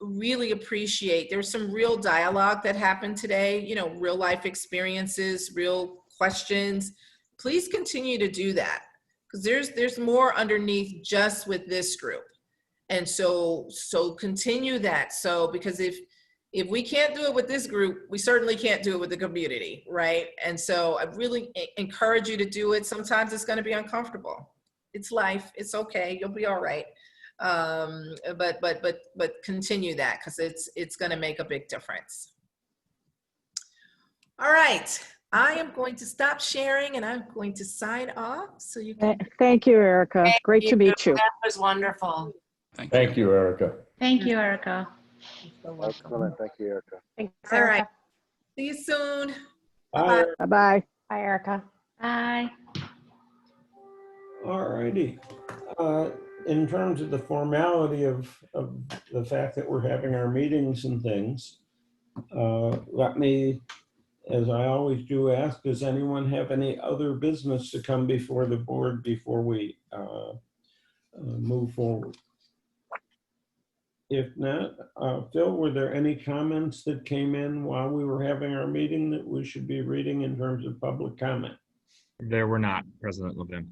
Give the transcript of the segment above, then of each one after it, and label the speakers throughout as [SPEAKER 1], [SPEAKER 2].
[SPEAKER 1] really appreciate there was some real dialogue that happened today you know real life experiences real questions please continue to do that because there's there's more underneath just with this group and so so continue that so because if if we can't do it with this group we certainly can't do it with the community right and so i really e- encourage you to do it sometimes it's going to be uncomfortable it's life it's okay you'll be all right um but but but but continue that because it's it's going to make a big difference all right i am going to stop sharing and i'm going to sign off so you can
[SPEAKER 2] Th- Thank you, Erica.
[SPEAKER 3] Thank
[SPEAKER 2] Great to
[SPEAKER 3] you.
[SPEAKER 2] meet you.
[SPEAKER 3] That was wonderful.
[SPEAKER 4] Thank you.
[SPEAKER 5] Thank you, Erica.
[SPEAKER 6] Thank
[SPEAKER 7] Mm-hmm.
[SPEAKER 6] you, Erica.
[SPEAKER 8] Excellent. Thank you, Erica.
[SPEAKER 7] Thanks,
[SPEAKER 1] all right
[SPEAKER 7] Erica.
[SPEAKER 1] see you soon
[SPEAKER 5] All
[SPEAKER 2] Bye-bye.
[SPEAKER 7] Bye, Erica.
[SPEAKER 6] Bye.
[SPEAKER 9] Alrighty. Uh, In terms of the formality of, of the fact that we're having our meetings and things, uh, let me, as I always do, ask, does anyone have any other business to come before the board before we uh, uh, move forward? If not, uh, Phil, were there any comments that came in while we were having our meeting that we should be reading in terms of public comment?
[SPEAKER 10] There were not, President Levin.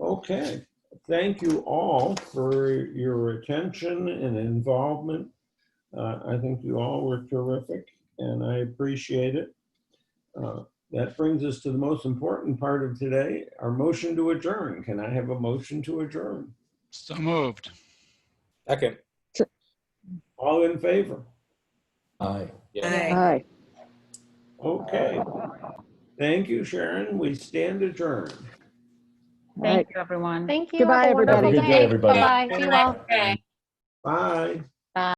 [SPEAKER 9] Okay, thank you all for your attention and involvement. Uh, I think you all were terrific and I appreciate it. Uh, That brings us to the most important part of today, our motion to adjourn. Can I have a motion to adjourn?
[SPEAKER 4] So moved.
[SPEAKER 8] Second.
[SPEAKER 9] All in favor?
[SPEAKER 5] Aye.
[SPEAKER 2] Bye.
[SPEAKER 9] Okay. Thank you, Sharon. We stand adjourned.
[SPEAKER 2] All right.
[SPEAKER 6] Thank you, everyone.
[SPEAKER 7] Thank you.
[SPEAKER 2] Goodbye,
[SPEAKER 7] Have a wonderful
[SPEAKER 2] everybody.
[SPEAKER 5] Have a good day, everybody.
[SPEAKER 7] Bye-bye. See you all.
[SPEAKER 3] Okay.
[SPEAKER 9] Bye.